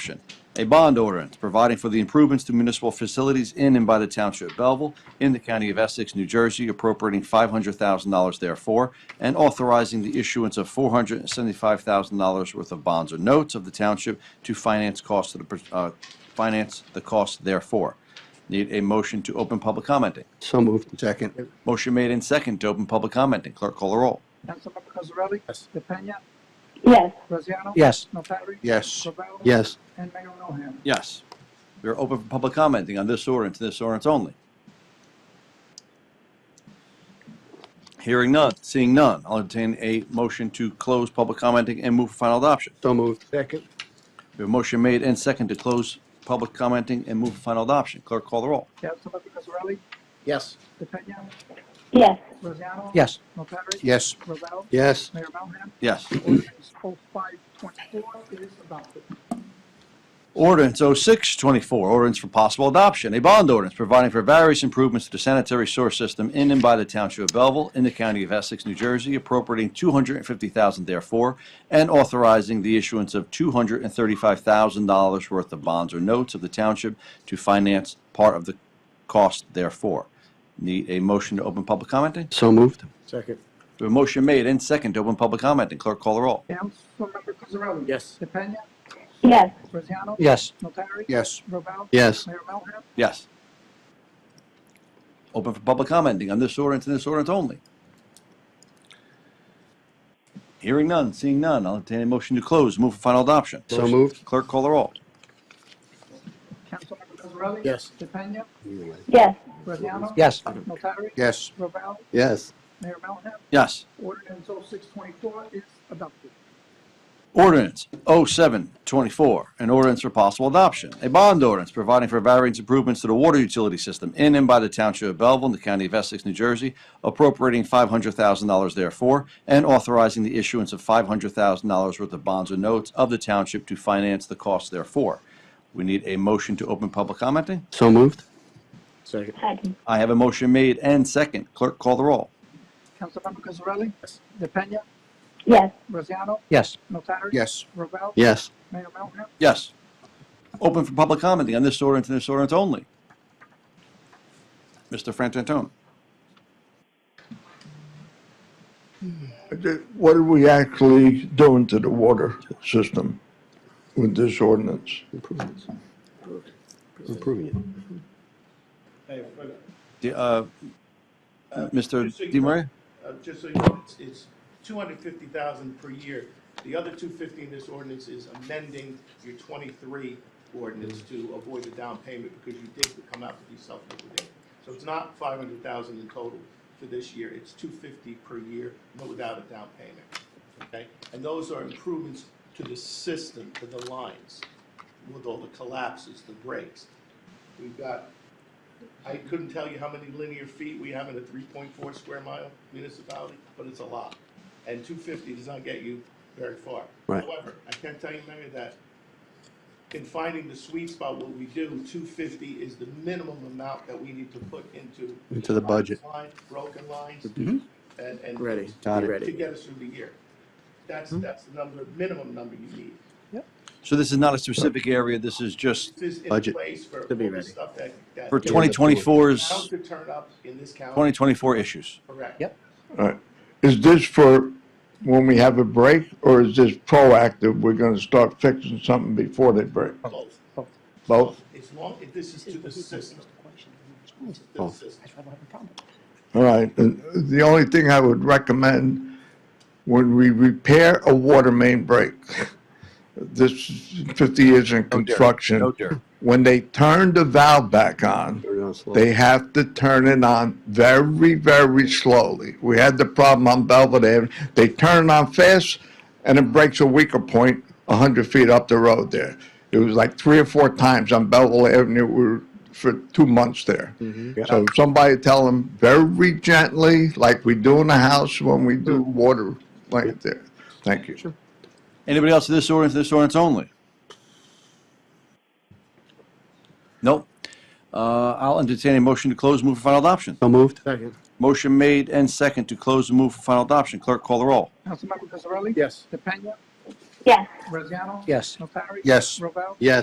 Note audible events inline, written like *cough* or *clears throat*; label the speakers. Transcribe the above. Speaker 1: Action. A bond ordinance providing for the improvements to municipal facilities in and by the Township of Belleville in the County of Essex, New Jersey, appropriating $500,000 therefore, and authorizing the issuance of $475,000 worth of bonds or notes of the township to finance costs of the, uh, finance the cost therefore. Need a motion to open public commenting.
Speaker 2: So moved.
Speaker 3: Second.
Speaker 1: Motion made in second to open public commenting. Clerk call the roll.
Speaker 4: Councilmember Cosarelli?
Speaker 3: Yes.
Speaker 4: DePena?
Speaker 5: yes,
Speaker 4: Graziano?
Speaker 2: Yes.
Speaker 4: Notary?
Speaker 3: Yes.
Speaker 4: Ravel?
Speaker 2: Yes.
Speaker 4: And Mayor Milham?
Speaker 1: Yes. We are open for public commenting on this ordinance, this ordinance only. Hearing none, seeing none, I'll entertain a motion to close public commenting and move for final adoption.
Speaker 2: So moved.
Speaker 3: Second.
Speaker 1: We have a motion made and second to close public commenting and move for final adoption. Clerk, call the roll.
Speaker 4: Councilmember Cosarelli?
Speaker 3: Yes.
Speaker 4: DePena?
Speaker 5: yes,
Speaker 4: Graziano?
Speaker 2: Yes.
Speaker 4: Notary?
Speaker 3: Yes.
Speaker 4: Ravel?
Speaker 2: Yes.
Speaker 4: Mayor Melham?
Speaker 1: Yes.
Speaker 4: Ordinance *clears throat* 0524 is adopted.
Speaker 1: Ordinance 0624, ordinance for possible adoption, a bond ordinance providing for various improvements to the sanitary sewer system in and by the Township of Belleville in the County of Essex, New Jersey, appropriating 250000 therefore, and authorizing the issuance of $235,000 worth of bonds or notes of the township to finance part of the cost therefore. Need a motion to open public commenting?
Speaker 2: So moved.
Speaker 3: Second.
Speaker 1: We have A motion made and second to open public commenting. Clerk, call the roll.
Speaker 4: Councilmember Cosarelli?
Speaker 3: Yes.
Speaker 4: DePena?
Speaker 5: yes,
Speaker 4: Graziano?
Speaker 2: Yes.
Speaker 4: Notary?
Speaker 3: Yes.
Speaker 4: Ravel?
Speaker 2: Yes.
Speaker 4: Mayor Melham?
Speaker 1: Yes. Open for public commenting on this ordinance and this ordinance only. Hearing none, seeing none, I'll entertain a motion to close, move for final adoption.
Speaker 2: So moved.
Speaker 1: Clerk, call the roll.
Speaker 4: Councilmember Cosarelli?
Speaker 3: Yes.
Speaker 4: DePena?
Speaker 5: yes,
Speaker 4: Graziano?
Speaker 2: Yes.
Speaker 4: Notary?
Speaker 3: Yes.
Speaker 4: Ravel?
Speaker 2: Yes.
Speaker 4: Mayor Melham?
Speaker 1: Yes.
Speaker 4: Ordinance 0624 is adopted.
Speaker 1: Ordinance 0724, an ordinance for possible adoption. A bond ordinance providing for various improvements to the water utility system in and by the Township of Belleville in the County of Essex, New Jersey, appropriating $500,000 therefore, and authorizing the issuance of $500,000 worth of bonds or notes of the township to finance the cost therefore. We need a motion to open public commenting.
Speaker 2: So moved.
Speaker 3: Second.
Speaker 5: second,
Speaker 1: I have a motion made and second. Clerk, call the roll.
Speaker 4: Councilmember Cosarelli?
Speaker 3: Yes.
Speaker 4: DePena?
Speaker 5: yes,
Speaker 4: Graziano?
Speaker 2: Yes.
Speaker 4: Notary?
Speaker 3: Yes.
Speaker 4: Ravel?
Speaker 2: Yes.
Speaker 4: Mayor Melham?
Speaker 1: Yes. Open for public commenting on this ordinance and this ordinance only. Mr. Frantantone.
Speaker 6: What are we actually doing to the water system with this ordinance?
Speaker 2: Improvements. Improving it.
Speaker 7: Hey, but,
Speaker 1: The, uh, Mr.
Speaker 7: just so you
Speaker 1: Di
Speaker 7: know-
Speaker 1: Maria?
Speaker 7: uh, Just so you know, it's, it's two hundred fifty thousand per year. The other two fifty in this ordinance is amending your twenty-three ordinance to avoid the down payment because you did come out to be self-liquidated. So it's not five hundred thousand in total for this year, it's two fifty per year, but without a down payment. Okay, and those are improvements to the system, to the lines, with all the collapses, the breaks. We've got I couldn't tell you how many linear feet we have in a three point four square mile municipality, but it's a lot. And two fifty does not get you very far.
Speaker 2: Right.
Speaker 7: However, I can tell you, Mayor, that in finding the sweet spot, what we do, two fifty is the minimum amount that we need to put into.
Speaker 2: Into the budget. Mm-hmm.
Speaker 7: Lines, broken lines,
Speaker 3: Mhm.
Speaker 7: and, and.
Speaker 3: Ready.
Speaker 2: Got
Speaker 3: Be
Speaker 2: it.
Speaker 7: To
Speaker 3: Ready.
Speaker 7: get us through the year. That's, that's the number, minimum number you need.
Speaker 1: So this is not a specific area, this is just
Speaker 7: This is in
Speaker 2: Budget.
Speaker 7: place for all
Speaker 3: To be
Speaker 7: the
Speaker 3: ready.
Speaker 7: stuff that, that.
Speaker 1: for
Speaker 7: that
Speaker 1: 2024's,
Speaker 7: Could turn up in this county,
Speaker 1: 2024 issues.
Speaker 7: correct?
Speaker 3: Yep.
Speaker 6: Uh, Is this for when we have a break, or is this proactive, we're gonna start fixing something before they break?
Speaker 7: Both.
Speaker 6: Both?
Speaker 7: As long, if this is to the system, to the
Speaker 2: Both.
Speaker 7: system.
Speaker 6: All right, and the only thing I would recommend, when we repair a water main break, this is fifty years in construction.
Speaker 1: No dirt.
Speaker 6: When they turn the valve back on,
Speaker 2: Turn it on slow.
Speaker 6: They have to turn it on very, very slowly. We had the problem on Belvedere. They turn it on fast and it breaks a weaker point a hundred feet up the road there. It was like three or four times on Belleville Avenue we were, for two months there. So somebody tell them very gently, like we do in the house when we do water like there. Thank you.
Speaker 1: Anybody else to this ordinance, this ordinance only? Nope. Uh, I'll entertain a motion to close, move for final adoption.
Speaker 2: So moved.
Speaker 3: Second.
Speaker 1: Motion made and second to close and move for final adoption. Clerk, call the roll.
Speaker 4: Councilmember Cosarelli?
Speaker 3: Yes.
Speaker 4: DePena?
Speaker 5: yes.
Speaker 4: Braziano?
Speaker 3: Yes.
Speaker 4: Notari?
Speaker 2: Yes.
Speaker 4: Ravel?
Speaker 2: Yes.